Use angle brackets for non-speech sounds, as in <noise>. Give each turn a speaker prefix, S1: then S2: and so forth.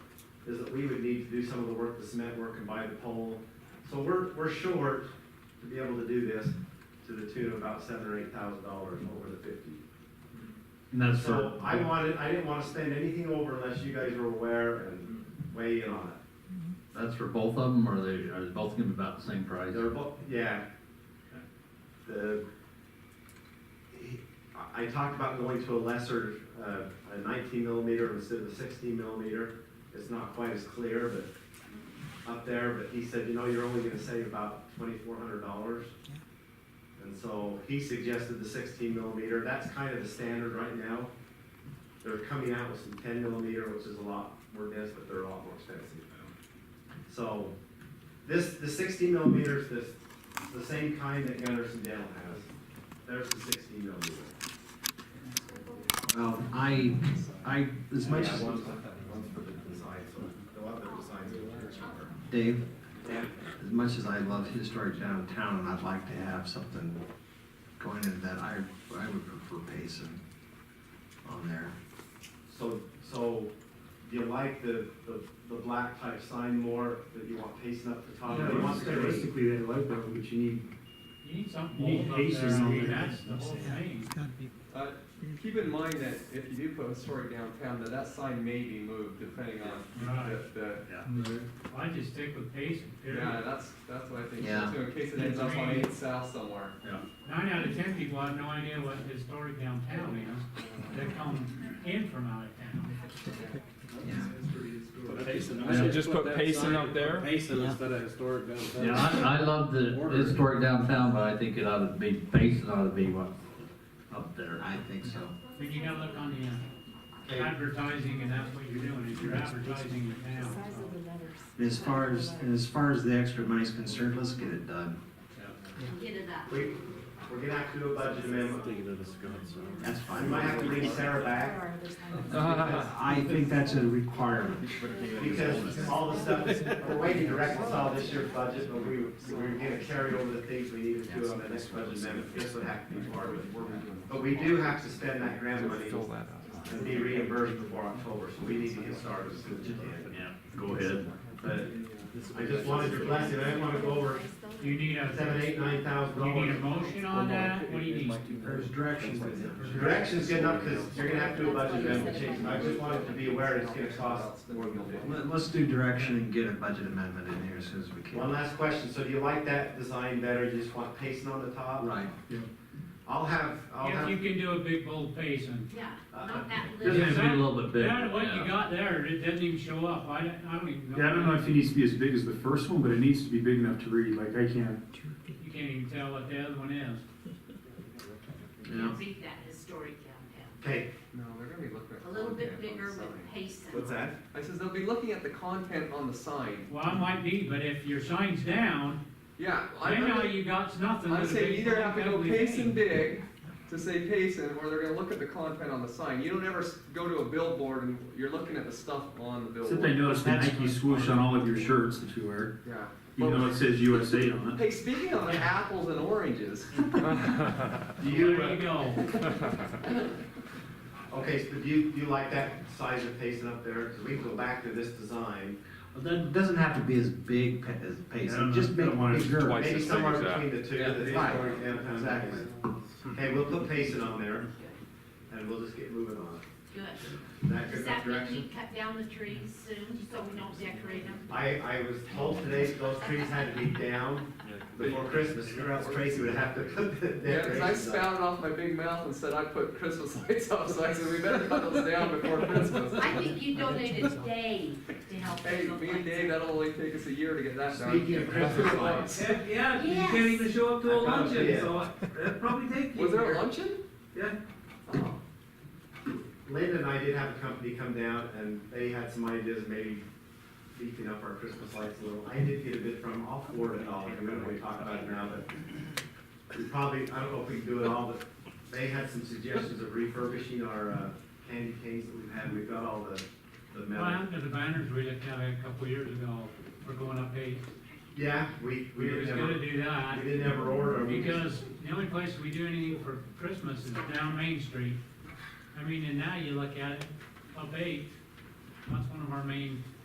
S1: is that we would need to do some of the work, the cement work and buy the pole. So we're, we're short to be able to do this to the tune of about seven or eight thousand dollars over the fifty.
S2: And that's for,
S1: So I wanted, I didn't wanna spend anything over unless you guys were aware and weigh in on it.
S2: that's for both of them, or are they, are they both gonna be about the same price?
S1: They're both, yeah. The, I I talked about going to a lesser, uh, a nineteen millimeter instead of a sixteen millimeter. It's not quite as clear, but up there, but he said, you know, you're only gonna save about twenty-four hundred dollars. And so he suggested the sixteen millimeter, that's kind of the standard right now. They're coming out with some ten millimeter, which is a lot more dense, but they're a lot more expensive. So, this, the sixty millimeters, this, the same kind that Gunderson Dale has. There's the sixty millimeter.
S2: Well, I, I, as much as,
S1: Yeah, one's- One's for the design, so the one that designs it.
S3: Dave,
S1: Yeah.
S3: as much as I love historic downtown and I'd like to have something going into that, I, I would prefer Payson on there.
S1: So, so do you like the, the, the black type sign more, that you want pacing up the top?
S4: Yeah,
S1: You want
S4: it's
S1: the-
S4: realistically, they like that, but you need,
S5: You need something
S4: You need
S5: bold up
S4: pacers
S5: there on
S4: on
S5: the,
S4: there.
S5: that's the whole thing.
S6: Uh, Keep in mind that if you do put a story downtown, that that sign may be moved depending on
S5: Right.
S6: the, the,
S5: I just stick with pacing,
S6: yeah,
S5: period.
S6: that's, that's what I think,
S3: Yeah.
S6: so in case it ends up on eight south somewhere.
S5: Nine out of ten people have no idea what historic downtown is. They come in from out of town.
S7: I should just put Payson up there.
S8: Yeah.
S2: yeah, I, I love the historic downtown, but I think it ought to be, Payson ought to be what, up there.
S3: I think so.
S5: But you gotta look on the uh, advertising, and that's what you're doing, is you're advertising your town.
S3: And as far as, and as far as the extra money's concerned, let's get it done.
S9: Get it up.
S1: We, we're gonna have to do a budget amendment.
S3: That's
S1: We
S3: fine.
S1: might have to bring Sarah back,
S3: I think that's a requirement.
S1: because all the stuff, we're waiting to reconcile this year's budget, but we, we're gonna carry over the things we needed to on the next budget amendment, this would have to be part of it. But we do have to spend that grant money and be reimbursed before October, so we need to get started as soon as we can.
S2: Yeah, go ahead.
S1: But I just wanted your blessing, I didn't wanna go over
S5: You need a,
S1: seven, eight, nine thousand
S5: you need a
S1: dollars.
S5: motion on that, Oh, what do you need?
S3: There's directions with it.
S1: Direction's good enough, cause you're gonna have to do a budget amendment change, I just wanted to be aware it's gonna cost more than fifty.
S3: Let- Let's do direction and get a budget amendment in here as soon as we
S1: One
S3: can.
S1: last question, so do you like that design better, you just want pacing on the top?
S3: Right.
S1: I'll have, I'll
S5: If you
S1: have,
S5: can do a big bold pacing.
S9: Yeah, not that
S2: It's
S9: little.
S2: gonna be a little bit big,
S5: That, what you
S2: yeah.
S5: got there, it doesn't even show up, I don't, I don't even know.
S4: yeah, I don't know if it needs to be as big as the first one, but it needs to be big enough to read, like I can't.
S5: You can't even tell what the other one is.
S9: You can beat that historic downtown.
S1: okay,
S6: No, they're gonna be looking at.
S9: A little bit
S6: content on
S9: bigger
S6: the sign.
S9: with pace.
S1: what's that?
S6: I says they'll be looking at the content on the sign.
S5: Well, it might be, but if your sign's down,
S6: Yeah, I
S5: then all
S6: know,
S5: you got's nothing.
S6: I'm
S5: but a
S6: saying
S5: big
S6: either have to go
S5: ugly
S6: Payson
S5: thing.
S6: big to say Payson, or they're gonna look at the content on the sign. You don't ever s- go to a billboard and you're looking at the stuff on the
S4: Except I
S6: billboard.
S4: noticed the Nike swoosh on all of your shirts that you wear,
S6: Yeah.
S4: even though it says USA on it.
S6: Hey, speaking of apples and oranges,
S1: Do
S5: There
S1: you,
S5: you go.
S1: okay, so do you, do you like that size of pacing up there, cause we can go back to this design,
S3: Well, That doesn't have to be as big pa- as Payson, just make
S4: I don't want
S3: it
S4: it
S3: bigger.
S7: twice.
S1: maybe
S7: as big
S1: somewhere
S7: as that.
S1: between the two,
S6: Yeah,
S1: that's
S3: right.
S1: historic downtown.
S3: Exactly.
S1: Okay, we'll put pacing on there, and we'll just get moving on it,
S9: Good.
S1: Is that good enough
S9: Does that mean we
S1: direction?
S9: cut down the trees soon, so we don't decorate them?
S1: I, I was told today that those trees had to be down before Christmas, or else Tracy would have to put the
S6: yeah, 'cause I
S1: decorations up.
S6: spouted off my big mouth and said I put Christmas <laughs> lights up, so I said we better cut those down before Christmas.
S9: I think you donated Dave to help.
S6: Hey, me and Dave, that'll only take us a year to get that done.
S1: Speaking of Christmas lights,
S5: Heck, yeah, you
S9: Yes.
S5: can't even show up to a
S1: I found
S5: luncheon,
S1: it.
S5: so that'd probably take you.
S6: <laughs> Was there
S5: there.
S6: a luncheon?
S1: Yeah.
S6: Oh,
S1: Linda and I did have a company come down and they had some ideas, maybe beefing up our Christmas lights a little. I did get a bit from, I'll forward it all, I remember we talked about it now, but we probably, I don't know if we can do it all, but they had some suggestions of refurbishing our uh, candy canes that we've had, we've got all the, the
S5: Well,
S1: metal.
S5: under the banners we looked at a couple years ago, we're going up eight.
S1: Yeah, we, we
S5: We was
S1: didn't
S5: gonna
S1: ever,
S5: do that,
S1: we didn't ever order. 'em. We just-
S5: because the only place we do anything for Christmas is down Main Street. I mean, and now you look at it, up eight, that's one of our main